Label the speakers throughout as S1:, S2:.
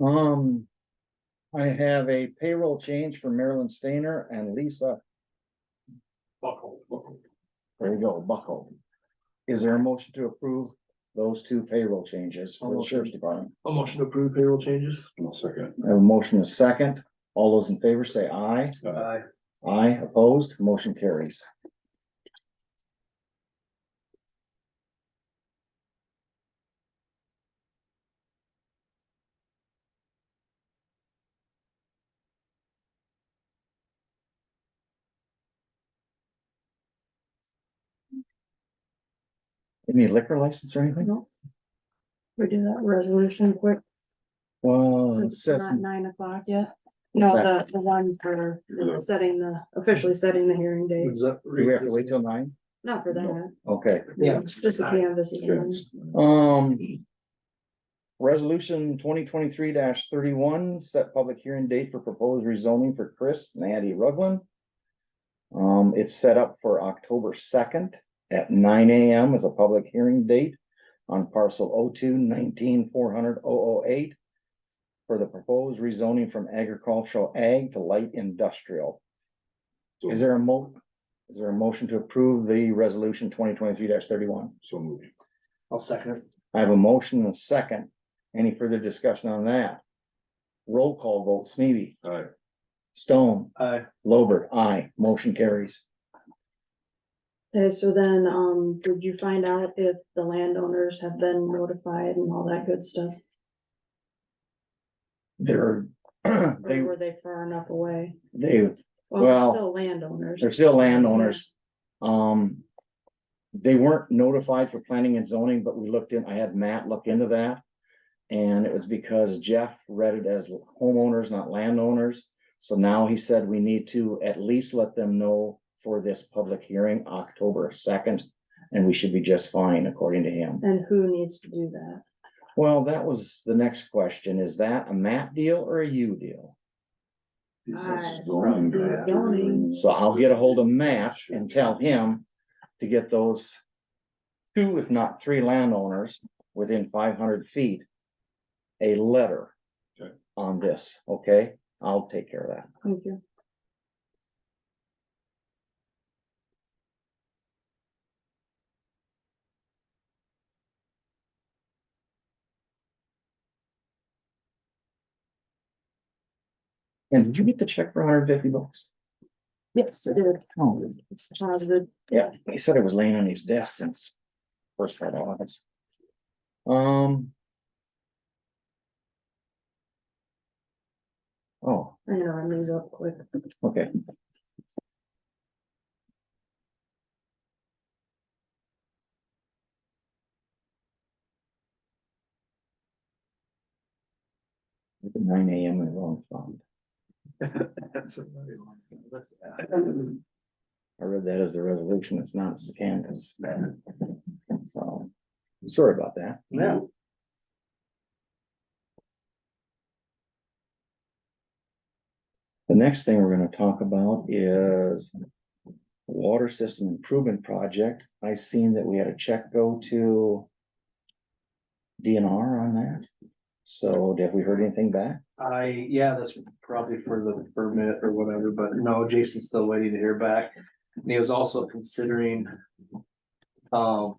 S1: Um, I have a payroll change for Marilyn Stainer and Lisa,
S2: Buckle.
S1: there you go, Buckle. Is there a motion to approve those two payroll changes for the sheriff's department?
S2: A motion to approve payroll changes.
S3: No second.
S1: I have a motion is second. All those in favor say aye.
S2: Aye.
S1: Aye, opposed, motion carries. Any liquor license or anything?
S4: No. We do that resolution quick,
S1: Well, it
S4: since it's
S1: says,
S4: not nine o'clock yet. No, the, the one for setting the, officially setting the hearing date,
S2: Is that?
S1: do we have to wait till nine?
S4: not for that.
S1: Okay.
S2: Yeah.
S4: It's Just the canvas is one.
S3: uh,
S1: Um. Resolution twenty twenty-three thirty-one, set public hearing date for proposed rezoning for Chris and Andy Rugland. Um, it's set up for October second at nine AM as a public hearing date on parcel oh two nineteen four hundred oh oh eight. For the proposed rezoning from agricultural ag to light industrial. Is there a mo- is there a motion to approve the resolution twenty twenty-three thirty-one?
S3: So moving.
S2: I'll second it.
S1: I have a motion and a second. Any further discussion on that? Roll call vote, Smeby,
S3: Aye.
S1: Stone,
S2: Aye.
S1: Lowberg, aye, motion carries.
S4: Okay, so then, um, did you find out if the landowners have been notified and all that good stuff?
S1: They're,
S4: Or
S1: they,
S4: were they far enough away?
S1: they, Well,
S4: Well, they're still landowners.
S1: they're still landowners. Um. They weren't notified for planning and zoning, but we looked in, I had Matt look into that. And it was because Jeff read it as homeowners, not landowners. So now he said we need to at least let them know for this public hearing, October second. And we should be just fine according to him.
S4: And who needs to do that?
S1: Well, that was the next question. Is that a Matt deal or a you deal?
S4: Aye.
S3: Zoning.
S4: Aye. Zoning.
S1: So I'll get a hold of Matt and tell him to get those. Two, if not three landowners within five hundred feet. A letter.
S3: Okay.
S1: On this, okay? I'll take care of that.
S4: Thank you.
S1: And did you get the check for hundred fifty bucks?
S4: Yes, it did.
S1: Oh,
S4: It's positive.
S1: yeah, he said it was laying on his desk since. First of all, Um. Oh.
S4: I know, I moves up quick.
S1: Okay. Look at Nine AM in the wrong font. I read that as the resolution. It's not, it's the canvas. So, sorry about that.
S2: Yeah.
S1: The next thing we're gonna talk about is. Water system improvement project. I seen that we had a check go to. DNR on that. So have we heard anything back?
S2: I, yeah, that's probably for the permit or whatever, but no, Jason's still waiting to hear back. And he was also considering. Um.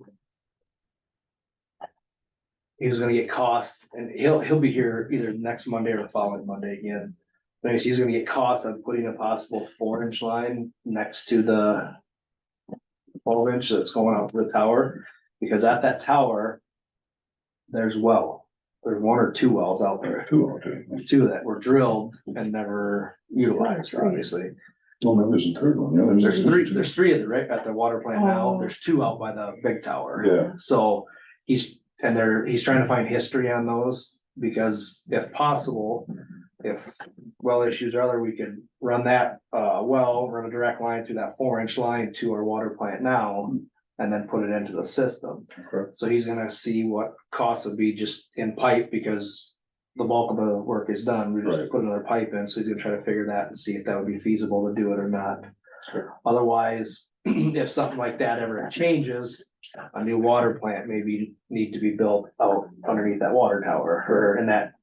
S2: He was gonna get costs and he'll, he'll be here either next Monday or the following Monday again. But he's gonna get costs on putting a possible four inch line next to the. Twelve inch that's going up to the tower, because at that tower. There's well, there's one or two wells out there
S3: Two out there.
S2: two that were drilled and never utilized, obviously.
S3: Well, no, there's a third one. No,
S2: There's three, there's three at the, right, at the water plant now,
S4: Oh.
S2: there's two out by the big tower.
S3: Yeah,
S2: So he's, and they're, he's trying to find history on those, because if possible, if well issues are other, we could run that, uh, well, run a direct line through that four inch line to our water plant now, and then put it into the system.
S3: okay.
S2: So he's gonna see what costs would be just in pipe because the bulk of the work is done. We just
S3: Right.
S2: put another pipe in, so he's gonna try to figure that and see if that would be feasible to do it or not.
S3: Sure.
S2: Otherwise, if something like that ever changes, a new water plant maybe need to be built out underneath that water tower or in that